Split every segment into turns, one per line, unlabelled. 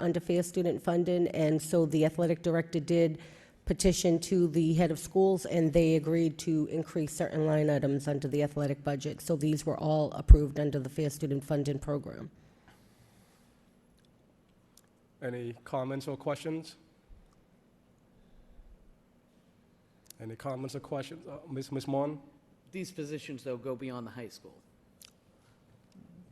under fair student funding, and so the athletic director did petition to the head of schools, and they agreed to increase certain line items under the athletic budget. So these were all approved under the fair student funding program.
Any comments or questions? Any comments or questions? Uh, Ms. Ms. Mon?
These positions, though, go beyond the high school,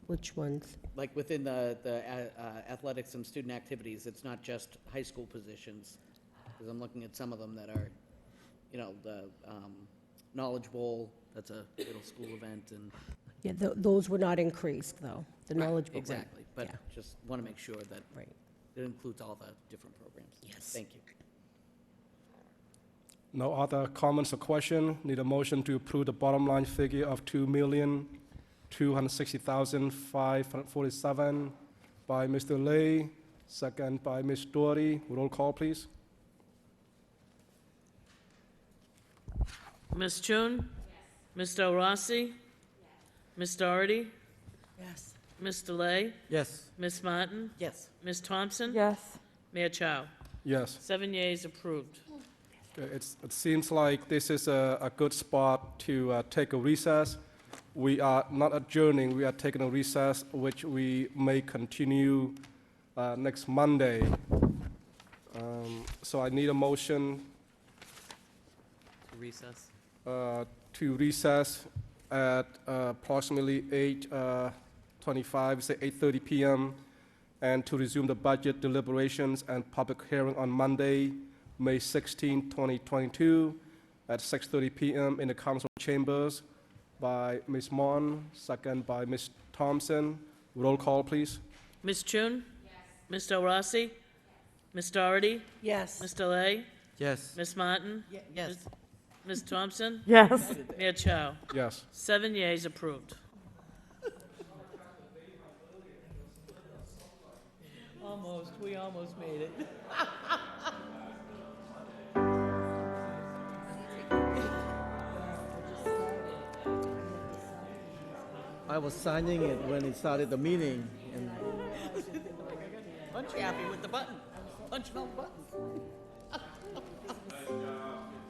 Which ones?
like within the, the uh, uh, athletics and student activities, it's not just high school positions, because I'm looking at some of them that are, you know, the um, Knowledge Bowl, that's a middle school event, and.
Yeah, tho- those were not increased, though, the knowledge. book, right.
Exactly, but
Yeah.
just want to make sure that
Right.
it includes all the different programs.
Yes.
Thank you.
No other comments or question? Need a motion to approve the bottom line figure of two million, two hundred sixty thousand, five hundred forty-seven by Mr. Lay, second by Ms. Doherty. Roll call, please.
Ms. Chun? Ms. Del Rossi? Ms. Doherty?
Yes.
Ms. Delay?
Yes.
Ms. Martin?
Yes.
Ms. Thompson?
Yes.
Mayor Chow?
Yes.
Seven yeas approved.
Okay, Uh, It's, it seems like this is a, a good spot to uh, take a recess. We are not adjourning, we are taking a recess, which we may continue uh, next Monday. Um, So I need a motion
Recess.
uh, to recess at uh, approximately 8:25, say 8:30 PM, and to resume the budget deliberations and public hearing on Monday, May 16, 2022, at 6:30 PM in the council chambers by Ms. Mon, second by Ms. Thompson. Roll call, please.
Ms. Chun? Ms. Del Rossi? Ms. Doherty?
Yes.
Ms. Delay?
Yes.
Ms. Martin?
Yes.
Ms. Thompson?
Yes.
Mayor Chow?
Yes.
Seven yeas approved.
Almost, we almost made it.
I was signing it when it started the meeting, and
Punch happy with the button. Punch all the buttons.